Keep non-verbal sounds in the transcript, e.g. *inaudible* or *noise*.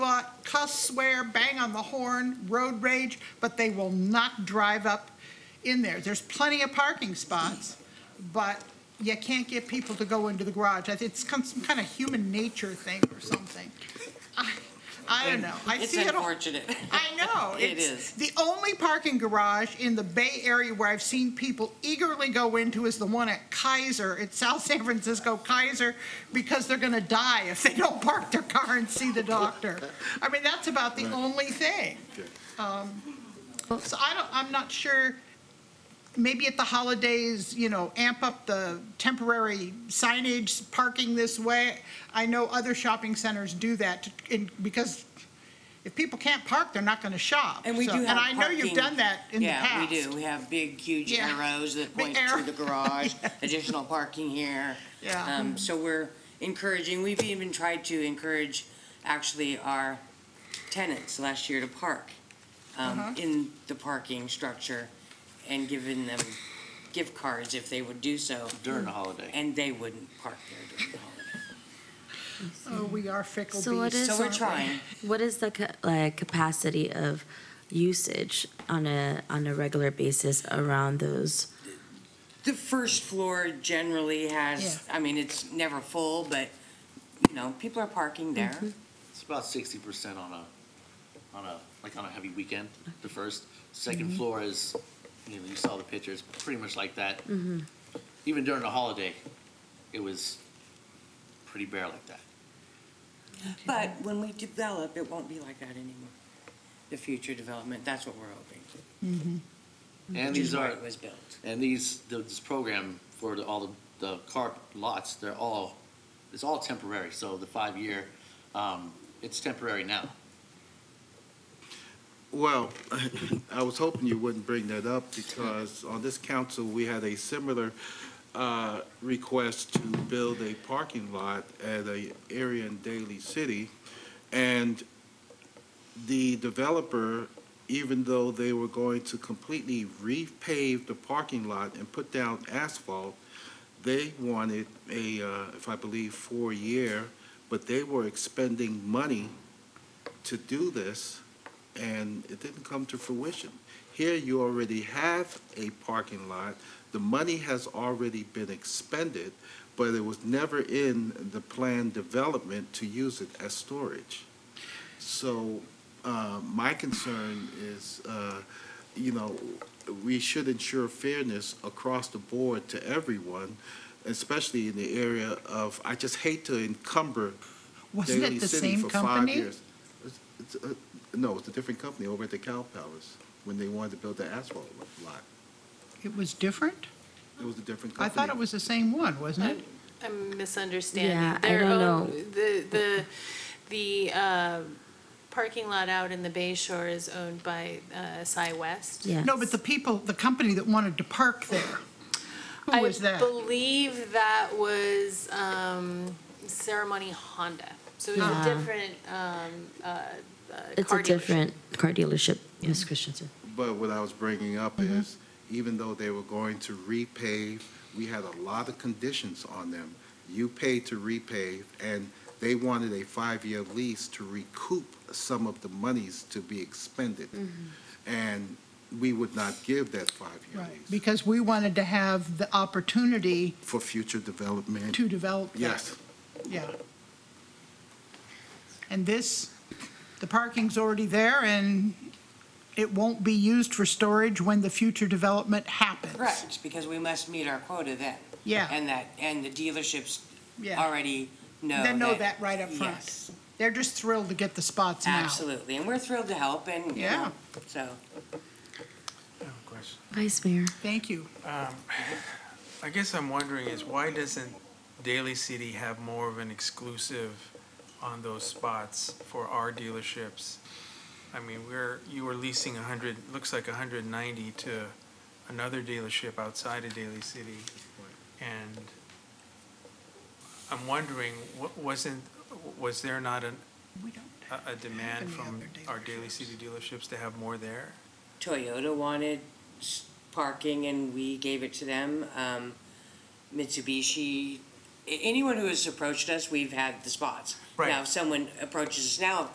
cuss, swear, bang on the horn, road rage, but they will not drive up in there. There's plenty of parking spots, but you can't get people to go into the garage. I think It's con- some kind of human nature thing or something. I, I don't know. I It's see it all. unfortunate. *laughs* I know. It It's is. The only parking garage in the Bay Area where I've seen people eagerly go into is the one at Kaiser, at South San Francisco Kaiser, because they're gonna die if they don't park their car and see the doctor. I mean, that's about the only thing. Um, So I don't, I'm not sure, maybe at the holidays, you know, amp up the temporary signage, parking this way. I know other shopping centers do that, to- in- because if people can't park, they're not going to shop. And we So- do have And I know you've parking- done that in the Yeah, past. we do. We have big, huge Yeah. arrows that Big point to arrow. *laughs* the garage, additional parking here. Yeah. Um, So we're encouraging, we've even tried to encourage actually our tenants last year to park um, Uh-huh. in the parking structure and giving them gift cards if they would do so, during the holiday. and they wouldn't park there during the holiday. Oh, we are fickle beasts. So what is- So we're aren't we? trying. What is the ca- like capacity of usage on a on a regular basis around those? The first floor generally has, I mean, it's never full, but, you know, people are parking there. Mm-hmm. It's about sixty percent on a, on a, like on a heavy weekend, the first. Mm-hmm. Second floor is, you know, you saw the pictures, pretty much like that. Mm-hmm. Even during the holiday, it was pretty bare like that. But when we develop, it won't be like that anymore. The future development, that's what we're hoping, And Mm-hmm. which is these why are, it was built. and these, the- this program for the- all the, the car lots, they're all, it's all temporary. So the five-year, um, it's temporary now. Well, *laughs* I was hoping you wouldn't bring that up because on this council, we had a similar uh, request to build a parking lot at a area in Daly City. And the developer, even though they were going to completely repave the parking lot and put down asphalt, they wanted a, uh, if I believe, four-year, but they were expending money to do this and it didn't come to fruition. Here, you already have a parking lot, the money has already been expended, but it was never in the planned development to use it as storage. So, uh, my concern is, uh, you know, we should ensure fairness across the board to everyone, especially in the area of, I just hate to encumber Wasn't Daily it the City same for five company? years. It's- it's, uh, No, it's a different company over at the Cow Palace, when they wanted to build the asphalt lot. It was different? It was a different I company. thought it was the same one, wasn't it? I'm misunderstanding. Yeah, I Their don't own- know. The, the, the uh, parking lot out in the Bay Shore is owned by uh, Cy West. Yeah. No, but the people, the company that wanted to park there, who was I that? believe that was um, Ceremony Honda. So it was Ah. a different um, uh, uh, It's car a dealership. different car dealership, Ms. Christensen. But what I was bringing up Mm-hmm. is, even though they were going to repave, we had a lot of conditions on them. You paid to repave, and they wanted a five-year lease to recoup some of the monies to be expended. And we would not give that five-year Mm-hmm. Right, lease Because we wanted to have the opportunity for future development. to develop that. Yes. Yeah. And this, the parking's already there, and it won't be used for storage when the future development happens. Correct, because we must meet our quota then. Yeah. And that, and the dealerships Yeah. already know that. They know that right up front. Yes, They're just thrilled to get the spots now. absolutely. And we're thrilled to help and, you Yeah. know, so. I have a question. Vice Mayor. Thank you. I guess I'm wondering is why doesn't Daly City have more of an exclusive on those spots for our dealerships? I mean, we're, you were leasing a hundred, looks like hundred and ninety to another dealership outside of Daly City. And I'm wondering, wa- wasn't, was there not an, We don't a- a demand Any from other our Daly dealerships? City dealerships to have more there? Toyota wanted s- parking and we gave it to them. Um, Mitsubishi, a- anyone who has approached us, we've had the spots. Right. Now, if someone approaches us now, of